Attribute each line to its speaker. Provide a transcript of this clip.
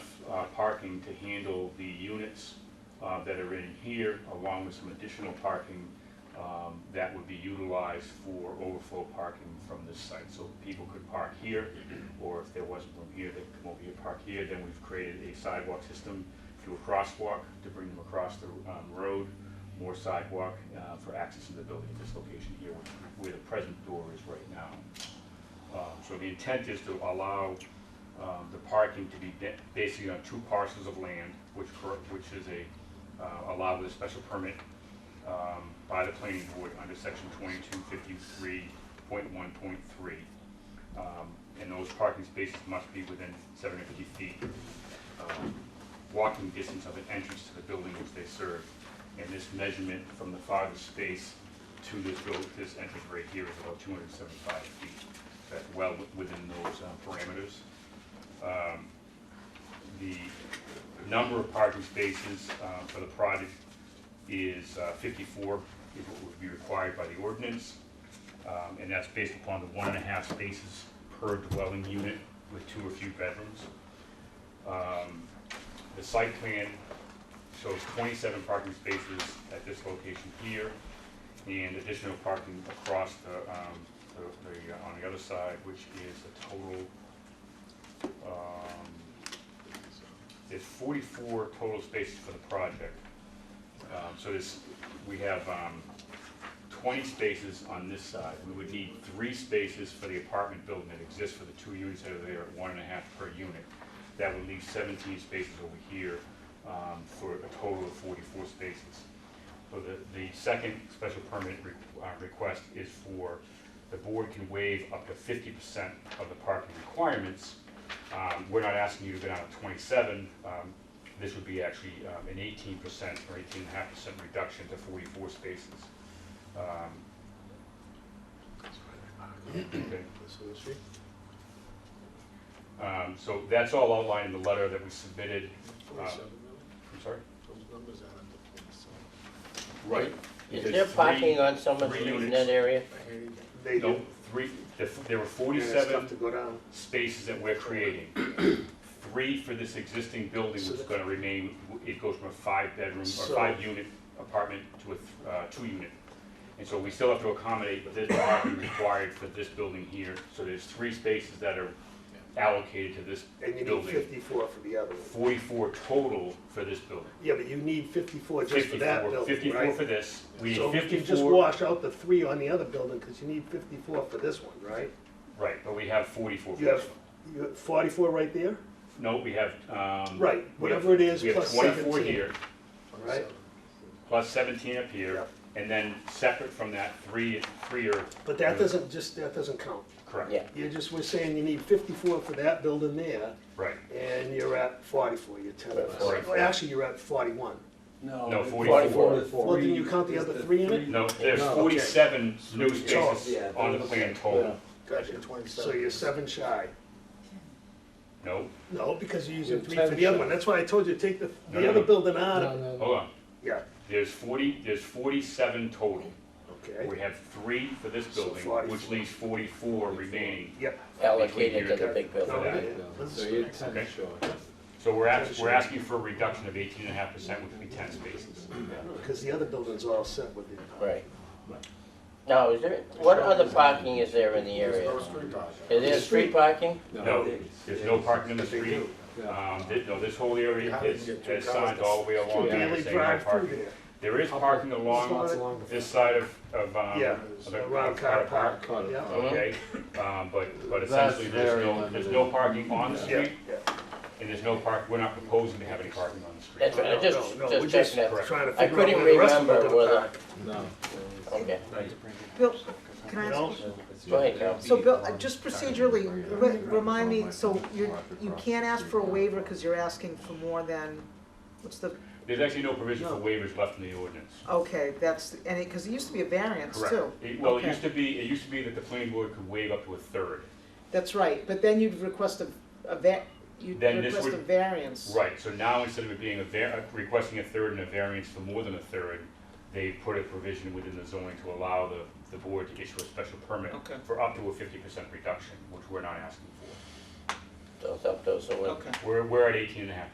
Speaker 1: uh, parking to handle the units uh, that are in here, along with some additional parking um, that would be utilized for overflow parking from this site. So people could park here, or if there wasn't room here, they could come over here, park here. Then we've created a sidewalk system through a crosswalk to bring them across the um, road, more sidewalk uh, for access to the building at this location here, where- where the present door is right now. Um, So the intent is to allow um, the parking to be ba- basically on two parcels of land, which, cor- which is a, uh, allowed with a special permit um, by the planning board under section twenty-two fifty-three point one point three. Um, And those parking spaces must be within seven hundred fifty feet um, walking distance of an entrance to the building which they serve. And this measurement from the farthest space to this buil- this entrance right here is about two hundred and seventy-five feet. That's well wi- within those uh, parameters. Um, The number of parking spaces uh, for the project is uh, fifty-four, is what would be required by the ordinance. Um, And that's based upon the one and a half spaces per dwelling unit with two or few bedrooms. Um, The site plan shows 27 parking spaces at this location here, and additional parking across the, um, the- the, uh, on the other side, which is a total, um, there's 44 total spaces for the project. Um, So this, we have um, 20 spaces on this side. We would need three spaces for the apartment building that exists for the two units that are there, at one and a half per unit. That would leave 17 spaces over here um, for a total of 44 spaces. So the, the second special permit re- uh, request is for, the board can waive up to 50% of the parking requirements. Um, We're not asking you to go down to 27. um, This would be actually um, an 18% or 18.5% reduction to 44 spaces. Um, okay. Um, So that's all outlined in the letter that we submitted. Uh, I'm sorry? Right.
Speaker 2: Is there parking on Summer
Speaker 1: three
Speaker 2: Street in
Speaker 1: units.
Speaker 2: that area?
Speaker 3: They
Speaker 1: No,
Speaker 3: do.
Speaker 1: three, there- there were
Speaker 3: And it's tough to
Speaker 1: forty-seven
Speaker 3: go down.
Speaker 1: spaces that we're creating. Three for this existing building, which is gonna remain, it goes from a five-bedroom or
Speaker 3: So-
Speaker 1: five-unit apartment to a, th- uh, two-unit. And so we still have to accommodate this parking required for this building here, so there's three spaces that are allocated to this
Speaker 3: And you need
Speaker 1: building.
Speaker 3: fifty-four for the other one.
Speaker 1: Forty-four total for this building.
Speaker 3: Yeah, but you need fifty-four just for that
Speaker 1: 54
Speaker 3: building,
Speaker 1: 54
Speaker 3: right?
Speaker 1: for this, we need
Speaker 3: So
Speaker 1: fifty-four.
Speaker 3: you can just wash out the three on the other building, because you need fifty-four for this one, right?
Speaker 1: Right, but we have forty-four.
Speaker 3: You have, you have forty-four right there,
Speaker 1: No, we have, um.
Speaker 3: Right,
Speaker 1: we have-
Speaker 3: whatever it is,
Speaker 1: we have
Speaker 3: plus
Speaker 1: 24
Speaker 3: 17.
Speaker 1: here,
Speaker 3: right?
Speaker 1: plus seventeen up here,
Speaker 3: Yep.
Speaker 1: and then separate from that, three, three are.
Speaker 3: But that
Speaker 1: Mm-hmm.
Speaker 3: doesn't, just, that doesn't count.
Speaker 1: Correct,
Speaker 2: Yeah.
Speaker 3: You're just, we're saying you need fifty-four for that building there,
Speaker 1: right,
Speaker 3: and you're at forty-four, you're ten.
Speaker 1: Forty-four.
Speaker 3: Well, actually, you're at forty-one.
Speaker 1: No,
Speaker 4: No,
Speaker 1: 44.
Speaker 3: Well, then you count the other three in it?
Speaker 1: no, there's
Speaker 4: No, okay.
Speaker 1: forty-seven new
Speaker 3: Total,
Speaker 1: spaces on the plan total,
Speaker 3: Gotcha. So you're seven shy.
Speaker 1: no,
Speaker 3: No, because you're using
Speaker 4: You're
Speaker 3: three for the other one, that's why I told you, take the,
Speaker 1: No,
Speaker 3: the
Speaker 1: no,
Speaker 3: other
Speaker 1: no.
Speaker 3: building out of it.
Speaker 1: hold on,
Speaker 3: Yeah,
Speaker 1: there's forty, there's forty-seven total. We
Speaker 3: okay,
Speaker 1: have three for this
Speaker 3: So
Speaker 1: building,
Speaker 3: 44.
Speaker 1: which leaves forty-four remaining.
Speaker 3: yep.
Speaker 2: Allocated to the big
Speaker 3: No,
Speaker 2: building.
Speaker 1: Yeah.
Speaker 3: yeah, this
Speaker 4: So
Speaker 3: is-
Speaker 4: you're kind
Speaker 1: Okay.
Speaker 4: of short.
Speaker 1: So we're ask, we're asking for a reduction of eighteen and a half percent, which would be ten spaces.
Speaker 3: Cause the other building's all set with it.
Speaker 2: Right. Now, is there, what other parking is there in the area? Is there street parking?
Speaker 1: No, there's no parking in the street.
Speaker 4: Yeah.
Speaker 1: Um, thi- no, this whole area
Speaker 5: How do you
Speaker 1: is,
Speaker 5: get two
Speaker 1: has signs all the way along
Speaker 3: You
Speaker 1: there
Speaker 3: barely
Speaker 1: saying no
Speaker 3: drive through
Speaker 1: parking.
Speaker 3: there.
Speaker 1: There is parking along this side of, of, um.
Speaker 3: Yeah,
Speaker 1: of the-
Speaker 3: around
Speaker 1: of
Speaker 3: car
Speaker 1: the
Speaker 3: park,
Speaker 4: Car park.
Speaker 3: yeah.
Speaker 1: Okay, um, but, but
Speaker 4: That's
Speaker 1: essentially, there's
Speaker 4: very
Speaker 1: no, there's no parking on the
Speaker 3: Yeah,
Speaker 1: street,
Speaker 3: yeah.
Speaker 1: and there's no park, we're not proposing to have any parking on the street.
Speaker 2: That's right, I just,
Speaker 3: No, no, we're
Speaker 2: just
Speaker 3: just
Speaker 2: checking
Speaker 3: trying
Speaker 2: that.
Speaker 3: to figure out
Speaker 2: I couldn't
Speaker 3: where the rest of them
Speaker 2: remember
Speaker 3: are gonna
Speaker 2: whether-
Speaker 3: park.
Speaker 4: No.
Speaker 2: Okay,
Speaker 6: Bill, can I
Speaker 3: You
Speaker 6: ask,
Speaker 3: know?
Speaker 6: you-
Speaker 2: go ahead, Carol.
Speaker 6: so Bill, uh, just procedurally, re- remind me, so you, you can't ask for a waiver because you're asking for more than, what's the,
Speaker 1: There's actually no provision for
Speaker 6: No.
Speaker 1: waivers left in the ordinance.
Speaker 6: okay, that's, and it, because it used to be a variance too.
Speaker 1: It- Well, it
Speaker 6: Okay.
Speaker 1: used to be, it used to be that the planning board could waive up to a third.
Speaker 6: That's right, but then you'd request a, a va, you'd
Speaker 1: Then this
Speaker 6: request a
Speaker 1: would-
Speaker 6: variance.
Speaker 1: Right, so now instead of it being a var, uh, requesting a third and a variance for more than a third, they put a provision within the zoning to allow the, the board to issue a special permit
Speaker 6: Okay.
Speaker 1: for up to a fifty percent reduction, which we're not asking for.
Speaker 2: Those up, those away.
Speaker 6: Okay.
Speaker 1: We're, we're at eighteen and a half